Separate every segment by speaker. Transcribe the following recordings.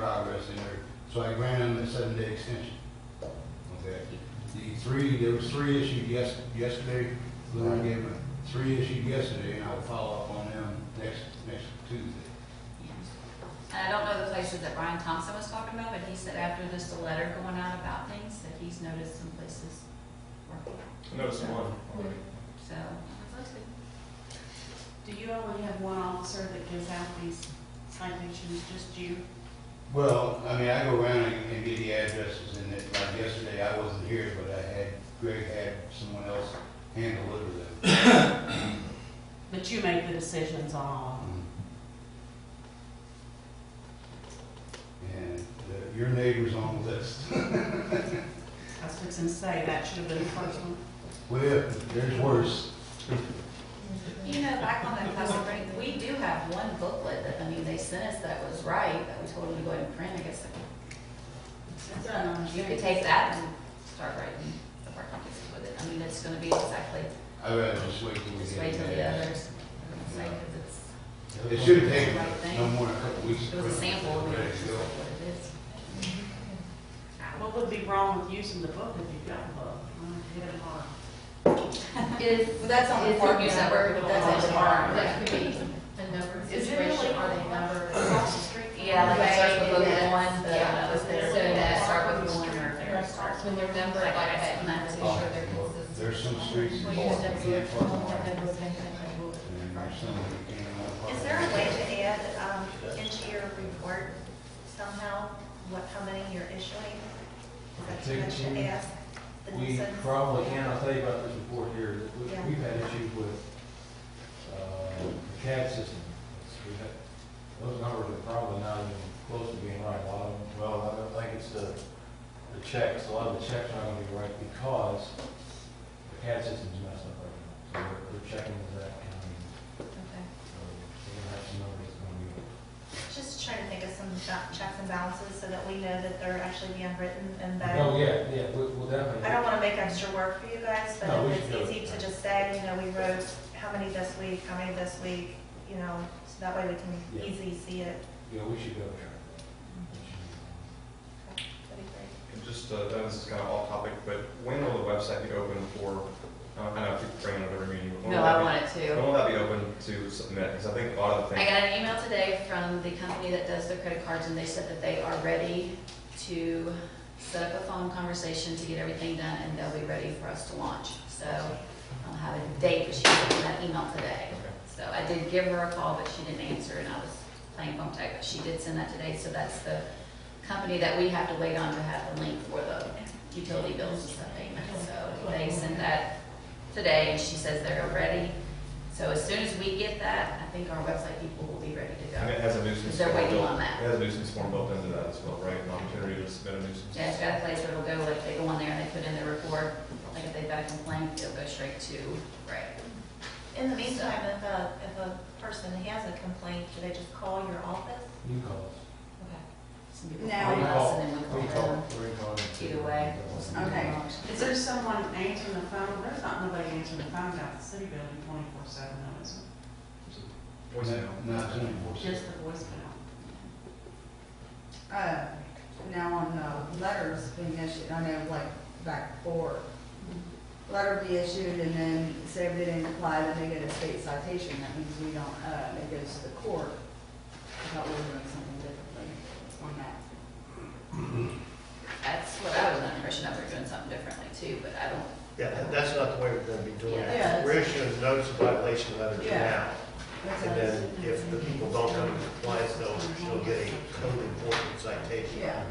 Speaker 1: progress in there. So I granted them a seven-day extension. Okay? The three, there was three issued yes, yesterday, Lou gave them three issued yesterday, and I'll follow up on them next, next Tuesday.
Speaker 2: And I don't know the places that Brian Thompson was talking about, but he said after this, the letter going out about things, that he's noticed some places working,
Speaker 3: Notice one.
Speaker 2: so.
Speaker 4: Do you only have one officer that gives out these citations, just you?
Speaker 1: Well, I mean, I go around and and get the addresses, and it, like yesterday, I wasn't here, but I had, Greg had someone else handle it with them.
Speaker 4: But you make the decisions on all of them?
Speaker 1: And the- your neighbor's on the list.
Speaker 4: I was fixing to say, that should have been the first one.
Speaker 1: Well, there's worse.
Speaker 2: You know, back on that class break, we do have one booklet that, I mean, they sent us that was right, that we told them to go ahead and print, I guess.
Speaker 4: That's what I don't
Speaker 2: You could take
Speaker 4: understand.
Speaker 2: that and start writing the parking tickets with it, I mean, it's gonna be exactly,
Speaker 1: I'd rather just wait till we
Speaker 2: just
Speaker 1: get.
Speaker 2: wait till the
Speaker 1: back.
Speaker 2: others, are gonna say, 'cause it's.
Speaker 1: It should have taken no more than a couple weeks. to
Speaker 2: It was a
Speaker 1: print it.
Speaker 2: sample, I mean,
Speaker 1: Ready
Speaker 2: it's
Speaker 1: to
Speaker 2: just
Speaker 1: go.
Speaker 2: like what it is.
Speaker 4: What would be wrong with using the book if you got a book? I don't get it hard.
Speaker 5: Is,
Speaker 2: Well, that's on the
Speaker 5: It's
Speaker 2: farm,
Speaker 5: a
Speaker 2: you said,
Speaker 5: number.
Speaker 2: that's on the farm,
Speaker 5: that
Speaker 2: yeah.
Speaker 5: could be a number
Speaker 4: Is it really
Speaker 5: situation on a number.
Speaker 4: across the street? from
Speaker 2: Yeah, like it starts with
Speaker 5: Right,
Speaker 2: book
Speaker 5: yeah.
Speaker 2: one, the,
Speaker 5: Yeah,
Speaker 2: uh,
Speaker 5: so
Speaker 2: instead
Speaker 5: that-
Speaker 2: that start with one or or start.
Speaker 5: When they're numbered like that, you have to be sure they're consistent.
Speaker 1: There's some streets in
Speaker 5: Well,
Speaker 1: Florida
Speaker 5: you
Speaker 1: that
Speaker 5: just
Speaker 1: can't
Speaker 5: have
Speaker 1: park
Speaker 5: to-
Speaker 1: on,
Speaker 5: one
Speaker 1: and
Speaker 5: number, same thing.
Speaker 1: there's some that you can't park
Speaker 6: Is there a way
Speaker 1: on.
Speaker 6: to add um, into your report somehow what, how many you're issuing? Is that what I should ask? The
Speaker 7: We
Speaker 6: nuisance?
Speaker 7: probably can, I'll tell you about this report here, that we-
Speaker 6: Yeah.
Speaker 7: we've had issues with, uh, the CAD system. It's- we've had- Those numbers are probably not even close to being right, a lot of, them- well, I don't think it's the, the checks, a lot of the checks aren't gonna be right because the CAD system's messed up right now, so we're, we're checking with that county,
Speaker 6: Okay.
Speaker 7: so we're gonna have some numbers that's gonna be.
Speaker 6: Just trying to think of some ba- checks and balances so that we know that they're actually being written
Speaker 7: Oh,
Speaker 6: and that,
Speaker 7: yeah, yeah, we- we'll definitely.
Speaker 6: I don't want to make extra work for you guys, but
Speaker 7: No, we
Speaker 6: if
Speaker 7: should do
Speaker 6: it's
Speaker 7: it.
Speaker 6: easy to just say, you know, we wrote how many this week, how many this week, you know, so that way we
Speaker 7: Yeah.
Speaker 6: can easily see it.
Speaker 7: Yeah, we should go. We should.
Speaker 6: That'd be great.
Speaker 3: And just, uh, this is kind of off topic, but when will the website be open for, I don't- I know I keep bringing it up every meeting. but when
Speaker 2: No,
Speaker 3: will that
Speaker 2: I
Speaker 3: be-
Speaker 2: want it
Speaker 3: When
Speaker 2: to.
Speaker 3: will that be open to submit? Because I think a lot of the
Speaker 2: I
Speaker 3: things,
Speaker 2: got an email today from the company that does the credit cards, and they said that they are ready to set up a phone conversation to get everything done, and they'll be ready for us to launch. So I'll have a date, but she sent that email today.
Speaker 3: Okay.
Speaker 2: So I did give her a call, but she didn't answer, and I was playing phone tag, but she did send that today, so that's the company that we have to wait on to have the link for the utility bills and stuff payment. So they sent that today, and she says they're ready. So as soon as we get that, I think our website people will be ready to
Speaker 3: and
Speaker 2: go.
Speaker 3: it has a nuisance.
Speaker 2: Because they're
Speaker 3: form
Speaker 2: waiting
Speaker 3: built-
Speaker 2: on that.
Speaker 3: It has a nuisance form built into that as well, right? An opportunity to submit a nuisance.
Speaker 2: Yeah, it's got a place where it'll go, like, they go on there and they put in their report, like, if they've got a complaint, it'll go straight to, right?
Speaker 6: In the meantime, if a, if a person has a complaint, do they just call your office?
Speaker 7: You call us.
Speaker 2: Some people
Speaker 4: Now-
Speaker 2: call us and then
Speaker 7: We
Speaker 2: we
Speaker 7: call,
Speaker 2: call them.
Speaker 7: we call.
Speaker 2: Either way.
Speaker 4: Okay. Is there someone answering the phone? There's not nobody answering the phone down at the city building twenty-four seven, though, is there?
Speaker 3: Voicemail.
Speaker 1: No, it's only four.
Speaker 4: Just the voicemail. Uh, now on, uh,
Speaker 8: letters being issued, I know like back four, letter be issued and then say if they didn't apply, then they get a state citation, that means we don't, uh, it goes to the court. I thought we were doing something differently on that.
Speaker 2: That's what I was under the impression that we're doing something differently too, but I don't,
Speaker 9: Yeah, that- that's not the way we're gonna be doing
Speaker 8: Yeah.
Speaker 9: it. We're issuing notice of violation letters
Speaker 8: Yeah.
Speaker 9: now, and then if the people don't come into compliance, they'll, she'll get a code enforcement citation.
Speaker 8: Yeah,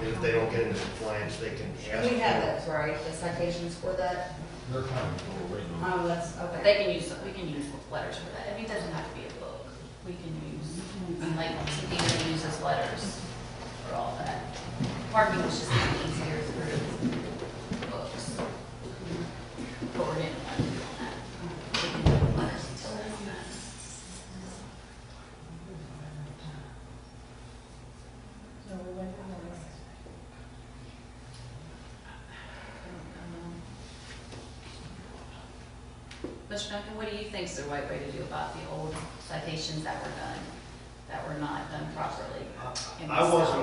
Speaker 9: And if they don't get into compliance, they can ask.
Speaker 8: we have those, right, the citations for that,
Speaker 7: They're coming, we're waiting on.
Speaker 8: oh, that's,
Speaker 2: but
Speaker 8: okay.
Speaker 2: they can use, we can use letters for that. I mean, it doesn't have to be a book. We can use, I
Speaker 4: Mm-hmm.
Speaker 2: mean, like, Cynthia uses letters for all that. Parking was just easier through books. But we're getting one on that. We can do letters until that's done.
Speaker 5: No, we went to the list.
Speaker 2: Mr. Duncan, what do you think is the right way to do about the old citations that were done, that were not done properly? in
Speaker 9: I
Speaker 2: this
Speaker 9: wasn't